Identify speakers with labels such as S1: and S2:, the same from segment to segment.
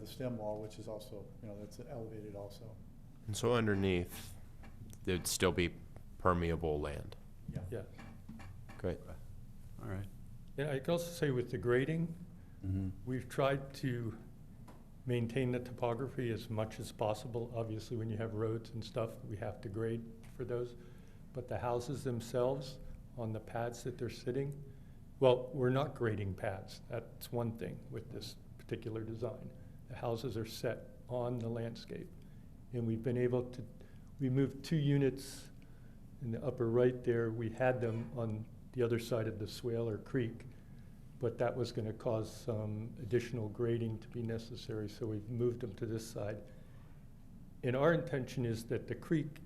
S1: the stem wall, which is also, you know, that's elevated also.
S2: And so underneath, there'd still be permeable land.
S3: Yeah,
S2: Great.
S4: All right.
S3: yeah, I can also say with the grading,
S4: Mhm.
S3: we've tried to maintain the topography as much as possible. Obviously, when you have roads and stuff, we have to grade for those. But the houses themselves, on the pads that they're sitting, well, we're not grading pads. That's one thing with this particular design. The houses are set on the landscape. And we've been able to, we moved two units in the upper right there. We had them on the other side of the swale or creek but that was going to cause some additional grading to be necessary, so we've moved them to this side. And our intention is that the creek,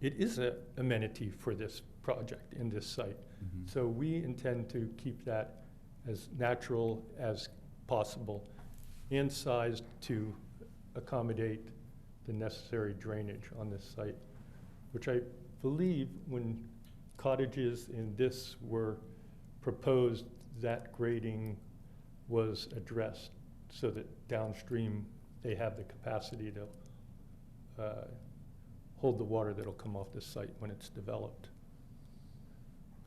S3: it is a amenity for this project in this site.
S4: Mhm.
S3: So we intend to keep that as natural as possible and sized to accommodate the necessary drainage on this site, which I believe when cottages in this were proposed, that grading was addressed so that downstream, they have the capacity to uh, hold the water that'll come off this site when it's developed.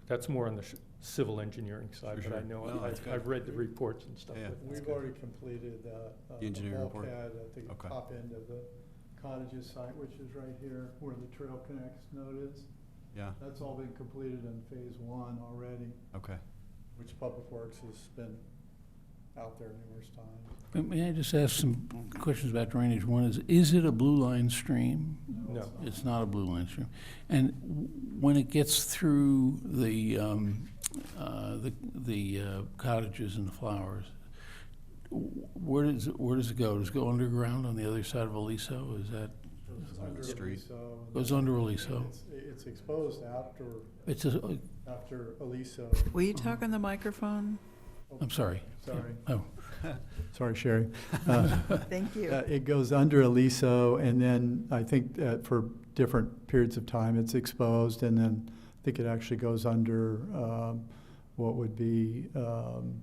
S3: That's more on the sh- civil engineering side,
S4: Sure,
S3: but I
S4: sure.
S3: know,
S4: No, that's
S3: I've,
S4: good.
S3: I've read the reports and stuff.
S4: Yeah.
S3: with that.
S1: We've already completed uh, uh,
S4: The engineering
S1: wall
S4: report?
S1: pad at the
S4: Okay.
S1: top end of the cottages site, which is right here where the trail connects note is.
S4: Yeah,
S1: That's all been completed in phase one already,
S4: okay.
S1: which Public Works has been out there numerous times.
S5: Uh, May I just ask some questions about drainage? One is, is it a blue line stream?
S3: No.
S1: it's not.
S5: It's not a blue line stream. And w- when it gets through the, um, uh, the- the uh, cottages and the flowers, w- where does, it- where does it go? Does it go underground on the other side of Aliso? Is that,
S1: It's
S4: Goes under
S1: under
S4: the street.
S1: Aliso and
S5: goes
S1: then
S5: under Aliso?
S1: It's, it's exposed after,
S5: It's a,
S1: after Aliso,
S6: Will you talk on the microphone?
S5: I'm sorry.
S1: sorry.
S5: Oh,
S1: Sorry, Sherry. Uh,
S6: Thank you.
S1: Uh, It goes under Aliso, and then I think uh, for different periods of time, it's exposed, and then I think it actually goes under um, what would be um,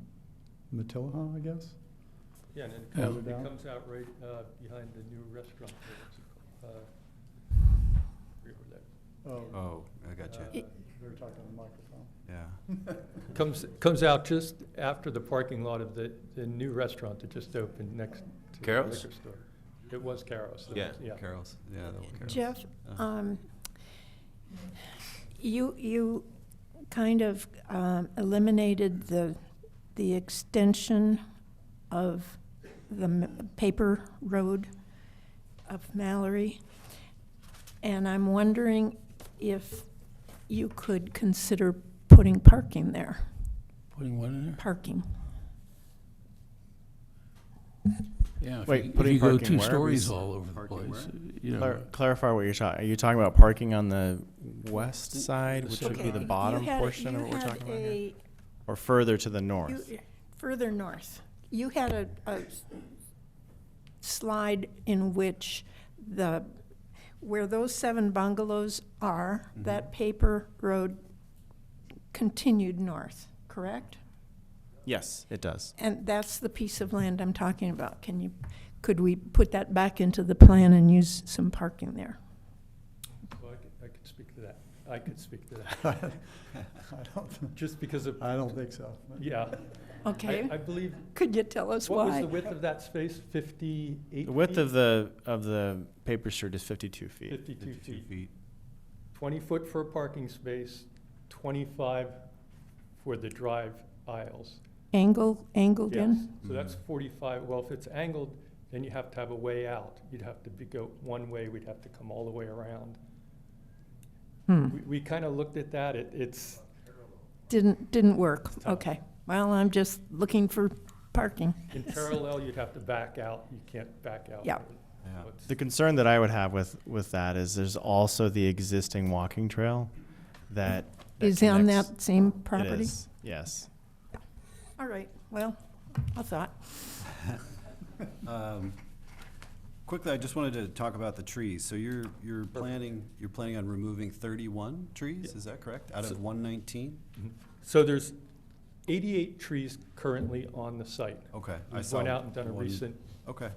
S1: Matilah, I guess?
S3: Yeah, and then it
S5: Yeah.
S3: comes,
S1: Yeah.
S3: it comes out right, uh, behind the new restaurant. there, what's it called? Uh, forget where that-
S1: Oh,
S4: Oh, I got
S3: uh,
S4: you.
S1: They're talking on the microphone.
S4: Yeah.
S3: Comes, comes out just after the parking lot of the, the new restaurant that just opened next to the liquor
S2: Carro's?
S3: store. It was Carro's.
S2: Yeah.
S3: Yeah.
S4: Carol's, yeah, the one Carol's.
S7: Jeff,
S4: Uh,
S7: um, you, you kind of um, eliminated the, the extension of the m- paper road of Mallory. And I'm wondering if you could consider putting parking there,
S5: putting what in there?
S7: parking.
S5: Yeah. if
S8: Wait,
S5: you-
S8: putting
S5: If
S8: parking
S5: you go two
S8: where?
S5: stories
S8: Is
S5: all over the
S4: parking
S5: place, you know.
S8: Clar- clarify what you're talking. Are you talking about parking on the west side, which would be
S7: Okay,
S8: the
S7: you
S8: bottom
S7: had-
S8: portion of
S7: you
S8: what we're
S7: had
S8: talking about here,
S7: a-
S8: or further to the
S7: You-
S8: north?
S7: Further north. You had a, a s- slide in which the, where those seven bungalows are,
S3: Mm-hmm.
S7: that paper road continued north, correct?
S8: Yes, it does.
S7: And that's the piece of land I'm talking about. Can you, could we put that back into the plan and use some parking there?
S3: So I could, I could speak to that. I could speak to that.
S1: I don't-
S3: Just because of,
S1: I don't think so.
S3: yeah. I-
S7: Okay?
S3: I believe,
S7: Could you tell us
S3: what was the
S7: why?
S3: width of that space? Fifty-eight?
S8: The width
S3: feet?
S8: of the of the paper street is 52 feet.
S3: Fifty-two
S4: 52
S3: feet.
S4: feet.
S3: Twenty foot for a parking space, twenty-five for the drive aisles.
S7: Angle, angled
S3: Yes,
S7: in?
S3: so that's
S4: Mm-hmm.
S3: forty-five, well, if it's angled, then you have to have a way out. You'd have to be, go one way, we'd have to come all the way around.
S7: Hmm.
S3: We, we kind of looked at that, it, it's,
S7: Didn't, didn't work.
S3: Tough.
S7: Okay. Well, I'm just looking for parking.
S3: in parallel, you'd have to back out, you can't back out.
S7: Yeah.
S4: Yeah.
S3: So it's-
S8: The concern that I would have with with that is there's also the existing walking trail that, that
S7: Is on
S8: connects-
S7: that same
S8: it
S7: property?
S8: is, yes.
S7: All right, well, I thought.
S4: Um, Quickly, I just wanted to talk about the trees. So you're, you're planning, you're planning on removing thirty-one trees, is that correct? Out
S3: So-
S4: of one nineteen?
S3: So there's 88 trees currently on the site.
S4: Okay. I
S3: We've
S4: saw
S3: gone out and done a
S4: one.
S3: recent
S4: Okay.